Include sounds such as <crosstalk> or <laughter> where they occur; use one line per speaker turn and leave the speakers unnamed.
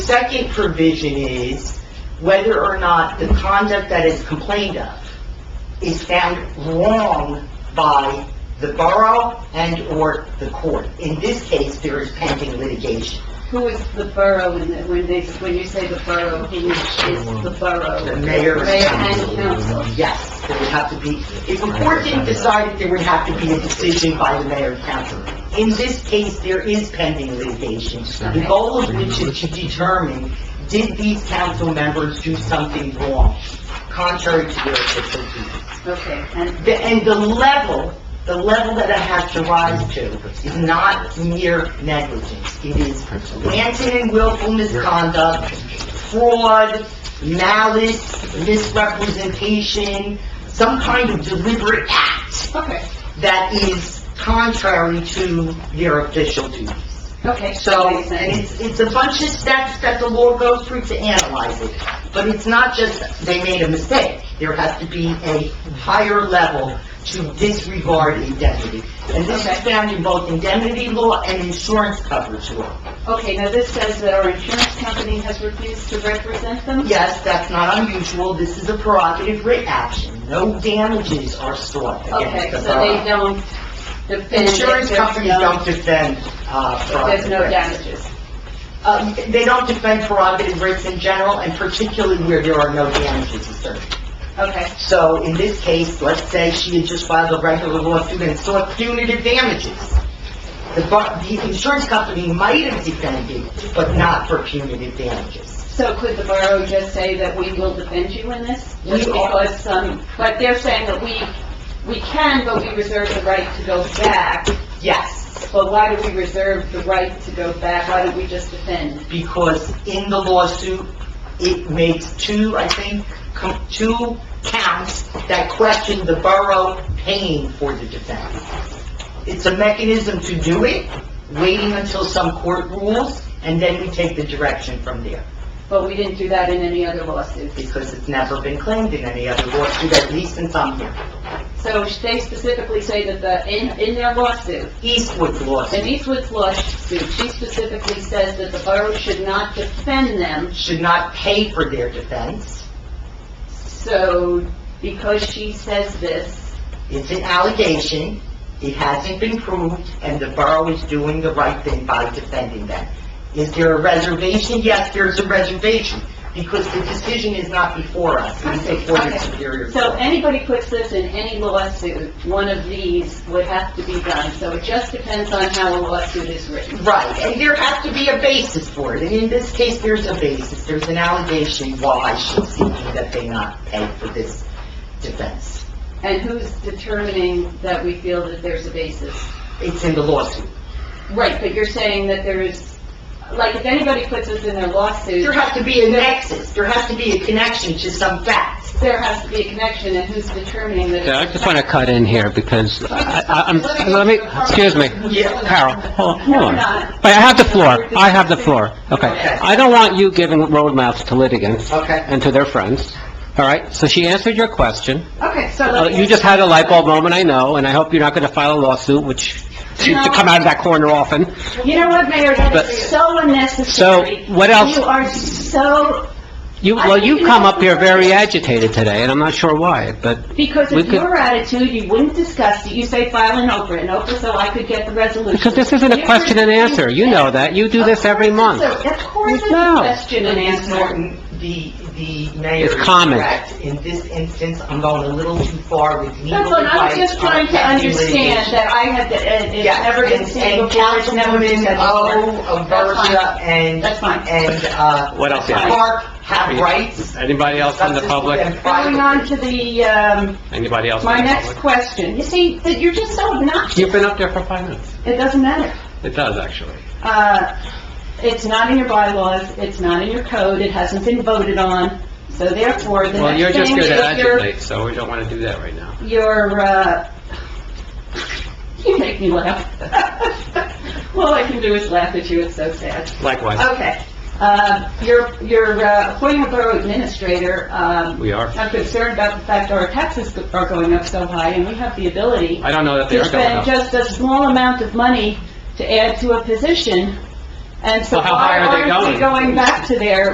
second provision is whether or not the conduct that is complained of is found wrong by the borough and/or the court. In this case, there is pending litigation.
Who is the borough in the, when they, when you say the borough, who is the borough?
The mayor and
and council.
Yes, there would have to be, if the court didn't decide it, there would have to be a decision by the mayor and council. In this case, there is pending litigation, the goal of which is to determine, did these council members do something wrong, contrary to their official duties?
Okay, and,
The- And the level, the level that it has to rise to is not mere negligence. It is rampant and willful misconduct, fraud, malice, misrepresentation, some kind of deliberate act
okay,
that is contrary to their official duty.
okay.
So,
Makes
and
sense.
it's, it's a bunch of steps that the law goes through to analyze it. But it's not just they made a mistake. There has to be a higher level to disregard indemnity. And this is found in both indemnity law and insurance coverage law.
Okay, now this says that our insurance company has refused to represent them?
Yes, that's not unusual. This is a prerogative writ action. No damages are sought
Okay,
against the
so they
borough.
don't defend. if
Insurance
there's
companies
no-
don't defend, uh,
if There's
prerogative
no
writs.
damages.
Uh, They don't defend prerogative rights in general, and particularly where there are no damages asserted.
Okay,
So in this case, let's say she had just filed a regular lawsuit and sought punitive damages. The bar- the insurance company might have defended, but not for punitive damages.
so could the borough just say that we will defend you in this? Just
We are-
because some, but they're saying that we, we can, but we reserve the right to go back
Yes,
But why do we reserve the right to go back? Why don't we just defend?
because in the lawsuit, it makes two, I think, com- two counts that question the borough paying for the defense. It's a mechanism to do it, waiting until some court rules, and then we take the direction from there,
But we didn't do that in any other lawsuit.
because it's never been claimed in any other lawsuit, at least since I'm here.
So they specifically say that the, in, in their lawsuit,
Eastwood
in
lawsuit
Eastwood's lawsuit, she specifically says that the borough should not defend them.
should not pay for their defense.
So because she says this,
It's an allegation, it hasn't been proved, and the borough is doing the right thing by defending them. Is there a reservation? Yes, there's a reservation, because the decision is not before us, it's before the
Okay.
Superior
so
Court.
anybody puts this in any lawsuit, one of these would have to be done. So it just depends on how a lawsuit is written.
Right, and there has to be a basis for it, and in this case, there's a basis, there's an allegation why she's seeking that they not pay for this defense.
And who's determining that we feel that there's a basis?
It's in the lawsuit.
Right, but you're saying that there is, like, if anybody puts this in their lawsuit,
There has to be a nexus, there has to be a connection to some fact.
there has to be a connection, and who's determining that?
Yeah, I just want to cut in here because I, I- I'm, let me, excuse me, Carol, hold hold on. Wait, I have the floor, I have the floor, okay. I don't want you giving roadmaps to litigants
Okay.
and to their friends, all right? So she answered your question.
Okay, so...
Uh,
let me-
You just had a light bulb moment, I know, and I hope you're not going to file a lawsuit, which seems to come out of that corner often.
You know what, Mayor, that is
But-
so unnecessary.
So, what else-
You are so,
You, well, you come up here very agitated today, and I'm not sure why, but...
because
We
of
could-
your attitude, you wouldn't discuss it. You say file an Oprah, an Oprah, so I could get the resolution.
Because this isn't a question and answer, you know that, you do this every month.
So, Of course it's a
No.
question and
Ms.
answer.
Norton, the, the mayor
It's
is
common.
correct. In this instance, I'm going a little too far with legal advice.
That's what I'm just
on
trying to
pending
understand,
litigation.
that I have, that it's
Yes,
never been
and-
seen
and
before, it's never been said
Councilwoman
before.
O,
That's fine.
Aversa, and...
That's fine.
And, uh...
What else you have?
Clark have rights.
Anybody else in the public?
Going on to the, um,
Anybody else in the
my
public?
next question. You see, that you're just so obnoxious.
You've been up there for five minutes.
It doesn't matter.
It does, actually.
Uh, it's not in your bylaws, it's not in your code, it hasn't been voted on, so therefore, the
Well, you're
next
just
thing
going to
is your,
agitate, so we don't want to do that right now.
your, uh, <laughs> you make me laugh. <laughs> All I can do is laugh at you, it's so sad.
Likewise,
Okay. Uh, You're you're, uh, appointing a borough administrator. um,
We are.
I'm concerned about the fact our taxes go- are going up so high, and we have the ability
I don't know that they
to
are going
spend
up.
just a small amount of money to add to a position And so
Well, how
why
high are they
aren't we
going?
going back to there